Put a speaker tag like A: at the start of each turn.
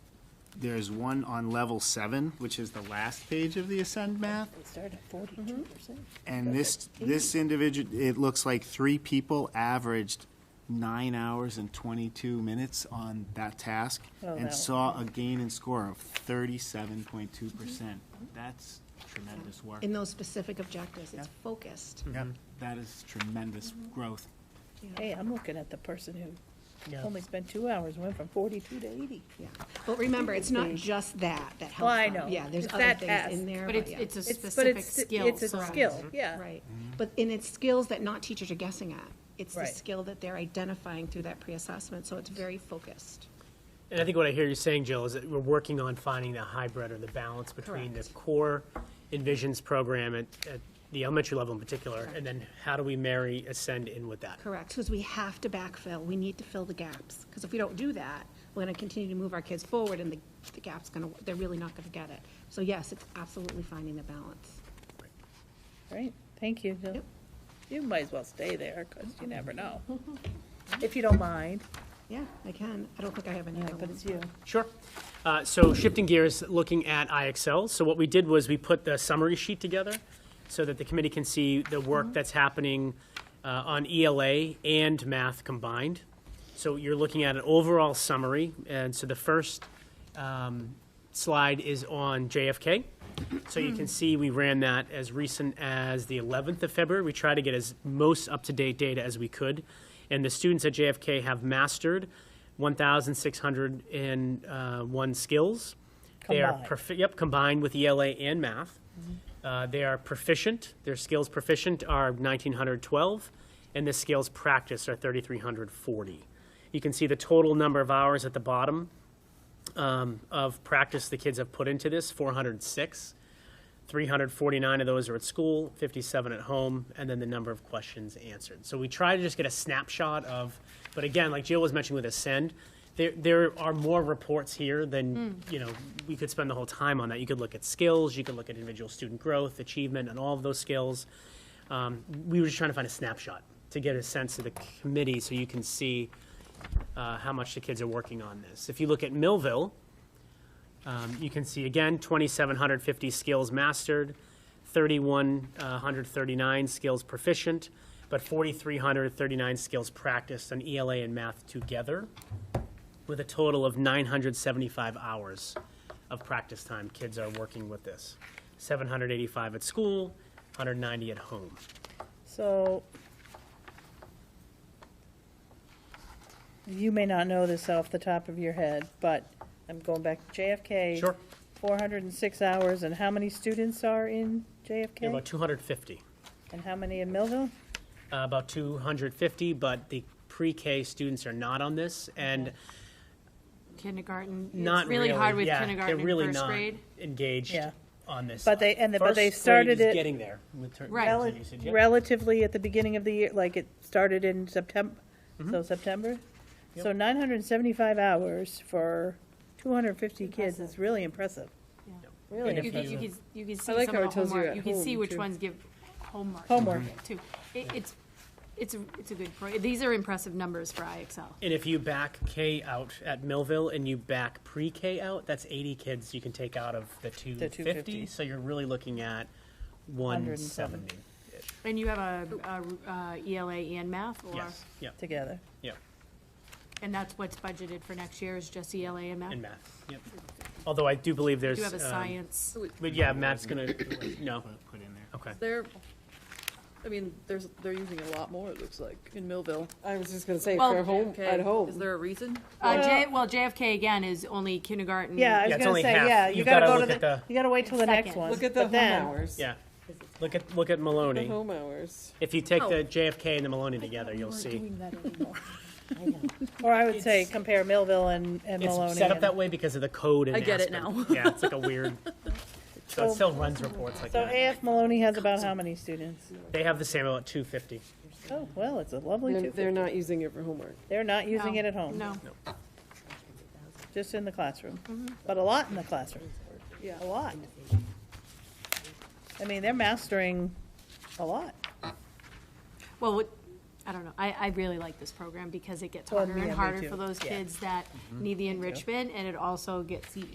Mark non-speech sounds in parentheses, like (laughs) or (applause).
A: there's one on level seven, which is the last page of the Ascend map.
B: We started at
C: Mm-hmm.
B: forty-two percent.
A: And this, this individual, it looks like three people averaged nine hours and 22 minutes on that task
B: Oh,
A: and
B: that-
A: saw a gain in score of 37.2%. That's tremendous work.
D: in those specific objectives. It's
A: Yeah.
D: focused.
B: Hmm.
A: Yep, that is tremendous growth.
B: Hey, I'm looking at the person who only spent two hours, went from forty-two to eighty.
D: Yeah. But remember, it's not just that that helps.
B: Well, I
D: them.
B: know.
D: Yeah, there's
B: It's
D: other
B: that
D: things
B: task.
D: in there.
E: But it's,
D: yeah.
E: it's a Mm-hmm.
B: It's- but
E: specific
B: it's-
E: skill.
B: It's a
E: correct.
B: skill, yeah.
D: Right. But, and it's skills that not teachers are guessing at. It's the
B: Right.
D: skill that they're identifying through that pre-assessment, so it's very focused.
C: And I think what I hear you saying, Jill, is that we're working on finding the hybrid or the balance between the
D: Correct.
C: core Envisions program at, at the elementary level in particular, and then how do we marry Ascend in with that?
D: Correct, because we have to backfill. We need to fill the gaps. Because if we don't do that, we're going to continue to move our kids forward and the, the gap's going to, they're really not going to get it. So yes, it's absolutely finding the balance.
B: Great, thank you, Jill.
D: Yep.
B: You might as well stay there, because you never know. If you don't mind.
D: Yeah, I can. I don't think I have any other
B: But
D: ones.
B: it's you.
C: Sure. Uh, So shifting gears, looking at IXL. So what we did was we put the summary sheet together so that the committee can see the
D: Mm-hmm.
C: work that's happening uh, on ELA and math combined. So you're looking at an overall summary. And so the first um, slide is on JFK. So you can see we ran that as recent as the 11th of February. We tried to get as most up-to-date data as we could. And the students at JFK have mastered 1,601 uh, skills. They are
B: Combined.
C: profi- Yep, combined with ELA and math. Uh, They are proficient, their skills proficient are 1,912, and the skills practice are 3,340. You can see the total number of hours at the bottom um, of practice the kids have put into this 406 349 of those are at school 57 at home and then the number of questions answered so we try to just get a snapshot of but again like jill was mentioning with ascend there, there are more reports here than you know we could spend the whole time on that you could look at skills you could look at individual student growth achievement and all of those skills um, we were just trying to find a snapshot to get a sense of the committee so you can see uh, how much the kids are working on this. If you look at Millville, um, you can see again, 2,750 skills mastered, 3,139 skills proficient, but 4,339 skills practiced on ELA and math together, with a total of 975 hours of practice time kids are working with this. 785 at school, 190 at home.
B: So you may not know this off the top of your head, but I'm going back to JFK.
C: Sure.
B: Four hundred and six hours, and how many students are in
C: There are
B: JFK?
C: About 250.
B: And how many in Millville?
C: uh, about 250, but the pre-K students are not on this, and
E: Kindergarten,
C: not
E: it's really hard with
C: yeah,
E: kindergarten
C: they're really
E: and first
C: not
E: grade.
C: engaged
B: Yeah.
C: on this.
B: But they- and the- but they
C: First grade
B: started
C: is
B: it
C: getting there with ter-
E: Right.
C: terms
B: Rel-
C: of usage, yeah.
B: Relatively at the beginning of the year, like it started in September,
C: Mm-hmm.
B: so September? So nine hundred and seventy-five hours for two hundred and fifty kids is really impressive.
E: Yeah.
B: Really
E: You can, you
B: impressive.
E: can, you can see
F: like
E: some
F: how
E: of
F: it
E: the
F: tells you
E: homework,
F: at
E: you can see
F: home,
E: which
F: too.
E: ones give homework.
B: Homework.
E: Too. It, it's, it's, a- it's a good, pro- these are impressive numbers for IXL.
C: And if you back K out at Millville and you back pre-K out, that's 80 kids you can take out of the
B: 250.
C: 250. So you're really looking at
B: 170.
C: 170.
E: And you have a, a, uh, ELA and math, or?
C: Yes, yeah,
B: Together.
C: yeah,
E: And that's what's budgeted for next year is just ELA and math?
C: in math, yep. Although I do believe there's.
E: Oh. Do you have a
C: um,
E: science?
C: But yeah, Matt's gonna, no,
A: Put in there.
C: okay.
F: They're, I mean, there's, they're using a lot more, it looks like, in Millville.
G: I was just gonna say,
E: Well,
G: for home,
F: Okay,
G: at
F: Is
G: home.
F: there a reason?
E: Uh, J, well, JFK again is only kindergarten.
B: Yeah, I
C: Mm, Yeah,
B: was
C: it's
B: gonna
C: only
B: say,
C: half.
B: yeah, you
C: You've
B: gotta
C: gotta
B: go to
C: look
B: the,
C: at the-
B: you gotta wait till the next
E: Second.
B: one.
G: Look at the
B: but
G: home
B: then-
G: hours.
C: Yeah, look at, look at
G: The
C: Maloney.
E: Uh-huh.
G: home hours.
C: If you
F: Oh.
C: take the JFK and the Maloney together, you'll see.
B: Or I would say compare Millville and, and Maloney.
C: It's set up
B: and-
C: that way because of the code and
F: I get it
C: Aspen. Yeah, it's like a
F: (laughs)
C: weird, so it still runs reports like
B: So
C: that.
B: AF Maloney has about how many students?
C: They have the same about two fifty.
B: Oh, well, it's a lovely
G: They're,
B: two.
G: they're not using it for homework.
B: They're not
E: No,
B: using it at home.
E: No.
B: Just in the classroom, but a lot in the classroom. Yeah. A lot. I mean, they're mastering a lot.
E: Well, what, I don't know, I, I really like this program because it gets
B: Well,
E: harder
B: me-
E: and
B: me
E: harder
B: too,
E: for those
B: yeah.
E: kids that need the enrichment, and it also gets, you